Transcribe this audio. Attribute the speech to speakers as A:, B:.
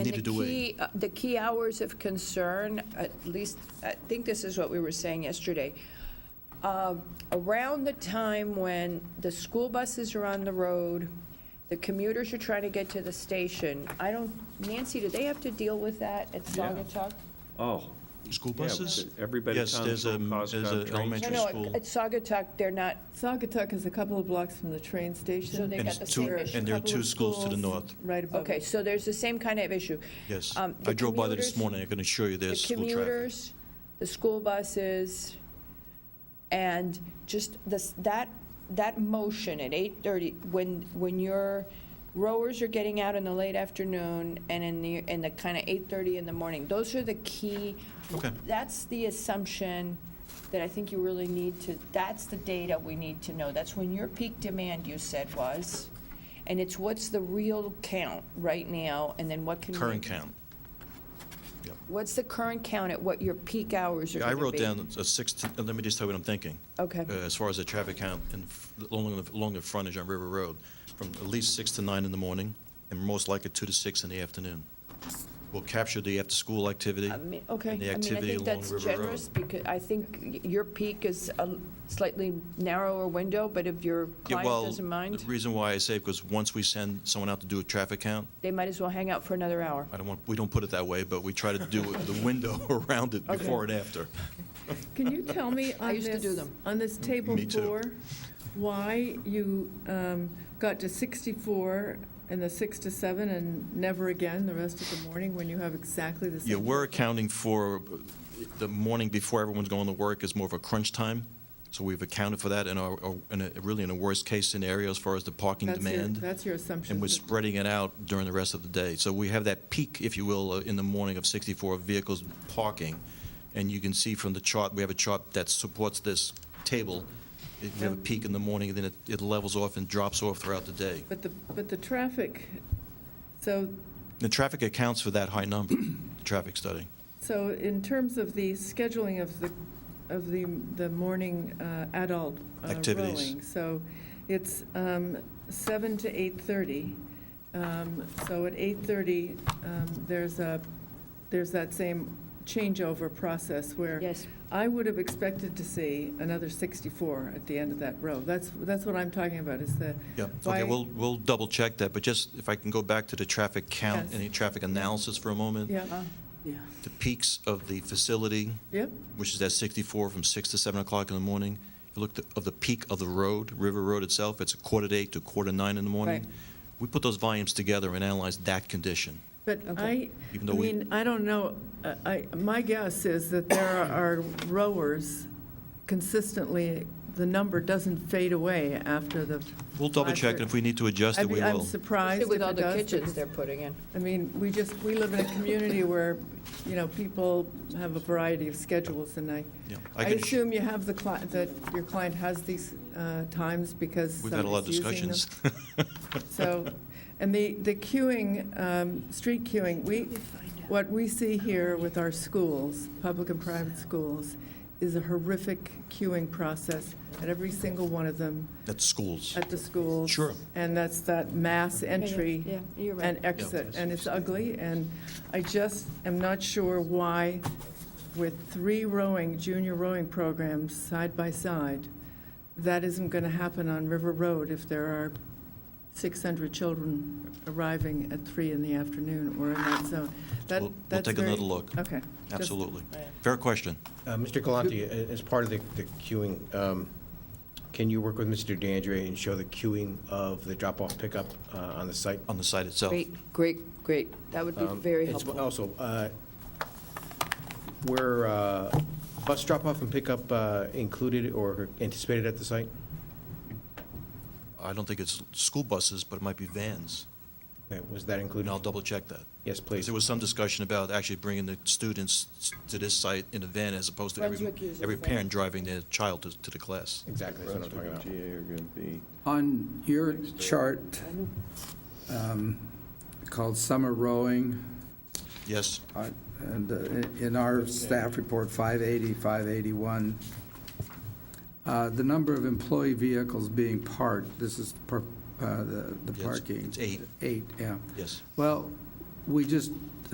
A: needed to wait.
B: key- uh, The key hours of concern, at least, I think this is what we were saying yesterday. Uh, Around the time when the school buses are on the road, the commuters are trying to get to the station, I don't, Nancy, do they have to deal with that at
C: Yeah.
B: Saugatuck?
C: Oh,
A: School
C: Yeah,
A: buses?
C: but everybody
A: Yes,
C: comes
A: there's a-
C: from Cos-
A: there's a
C: Cos- Train
A: elementary
B: No,
C: Station.
B: no, at-
A: school.
B: at Saugatuck, they're not,
D: Saugatuck is a couple of blocks from the train
B: So
D: station.
B: they
A: And
B: got the
A: it's two-
B: same issue.
A: And there are
D: Couple
A: two
D: of
A: schools to the
D: schools
A: north,
D: Right above
B: okay,
D: it.
B: so there's the same kind of issue.
A: yes.
B: Um,
A: I
B: the
A: drove by there this
B: commuters-
A: morning, I can assure you
B: the
A: there's school traffic.
B: commuters, the school buses, and just this, that, that motion at 8:30, when, when your rowers are getting out in the late afternoon and in the, in the kind of 8:30 in the morning, those are the key.
A: Okay.
B: That's the assumption that I think you really need to, that's the data we need to know. That's when your peak demand, you said, was. And it's what's the real count right now, and then what can we?
A: Current count.
B: What's the current count at what your peak hours are going
A: I
B: to be?
A: wrote down a six, to- uh, let me just tell you what I'm thinking.
B: Okay.
A: Uh, As far as the traffic count in f- along, the- along the frontage on River Road, from at least six to nine in the morning, and most likely two to six in the afternoon. We'll capture the after-school activity.
B: I mean, okay.
A: and
B: I
A: the
B: mean, I
A: activity
B: think
A: along
B: that's
A: River Road.
B: generous, because I think y- your peak is a slightly narrower window, but if your
A: Yeah,
B: client
A: well,
B: doesn't
A: The
B: mind,
A: reason why I say, because once we send someone out to do a traffic count,
B: they might as well hang out for another hour.
A: I don't want, we don't put it that way, but we try to do it- the window around it before and after.
D: Can you tell me on
B: used to do
D: this,
B: them.
D: on this table
A: Mm, Me too.
D: four, why you um, got to 64 and the 6 to 7 and never again the rest of the morning when you have exactly the same?
A: Yeah, we're accounting for the morning before everyone's going to work is more of a crunch time, so we've accounted for that in our, in a, really in a worst-case scenario as far as the parking
D: That's your-
A: demand,
D: That's your assumption.
A: and we're spreading it out during the rest of the day. So we have that peak, if you will, uh, in the morning of 64 vehicles parking, and you can see from the chart, we have a chart that supports this table. It- We have a
D: Yeah.
A: peak in the morning, and then it, it levels off and drops off throughout the day.
D: But the, but the traffic, so,
A: The traffic accounts for that high number, the traffic study.
D: so in terms of the scheduling of the, of the, the morning uh, adult uh,
A: Activities.
D: rowing, so it's um, seven to 8:30. Um, So at 8:30, um, there's a, there's that same changeover process where
B: Yes.
D: I would have expected to see another 64 at the end of that row. That's, that's what I'm talking about, is the.
A: Yeah,
D: why-
A: okay, we'll, we'll double check that, but just if I can go back to the traffic count
D: Yes.
A: and the traffic analysis for a moment.
D: Yeah,
A: The peaks of the facility,
D: yep,
A: which is at 64 from 6 to 7 o'clock in the morning. If you look at- of the peak of the road, River Road itself, it's a quarter to 8 to quarter 9 in the morning.
B: Right.
A: We put those volumes together and analyze that condition.
D: but I,
A: Even
D: I
A: though we-
D: mean, I don't know, I- I, my guess is that there are rowers consistently, the number doesn't fade away after the.
A: We'll double check, and if we need to adjust it,
D: I'd
A: we
D: be- I'm
A: will.
D: surprised if
B: With all
D: it
B: the
D: does,
B: kitchens
D: because-
B: they're putting in.
D: I mean, we just, we live in a community where, you know, people have a variety of schedules, and I,
A: Yeah, I
D: I
A: can-
D: assume you have the, cli- that your client has these uh, times because
A: We've had a lot of
D: somebody's using them.
A: discussions.
D: So, and the, the queuing, um, street queuing, we, what we see here with our schools, public and private schools, is a horrific queuing process at every single one of them,
A: That's schools.
D: at the schools.
A: Sure.
D: And that's that mass entry
B: Yeah, you're right.
D: and exit, and it's ugly, and I just am not sure why with three rowing, junior rowing programs side by side, that isn't going to happen on River Road if there are 600 children arriving at three in the afternoon or in that zone. That-
A: We'll- we'll
D: that's
A: take
D: very-
A: another look.
D: Okay. just-
A: Absolutely. Fair question.
E: Uh, Mr. Galante, a- as part of the the queuing, um, can you work with Mr. DeAndre and show the queuing of the drop-off pickup uh, on the site?
A: On the site itself.
B: Great, great, great. That would be
E: Um,
B: very
E: it's-
B: helpful.
E: Also, uh, were uh, bus drop-off and pickup uh, included or anticipated at the site?
A: I don't think it's school buses, but it might be vans.
E: Okay, Was that
A: And
E: included?
A: I'll double-check that.
E: Yes,
A: Because
E: please.
A: there was some discussion about actually bringing the students s- to this site in a van as opposed to every,
B: Brunswick uses
A: every
B: vans.
A: parent driving their child to, to the class.
E: Exactly, that's what I'm talking
F: Brunswick
E: about.
F: and GA are going to be,
G: On your chart um, called Summer Rowing,
A: Yes,
G: uh, and uh, in- in our staff report, 580, 581, uh, the number of employee vehicles being parked, this is per- uh, the the
A: Yes,
G: parking.
A: it's eight.
G: Eight, yeah.
A: yes.
G: Well, we just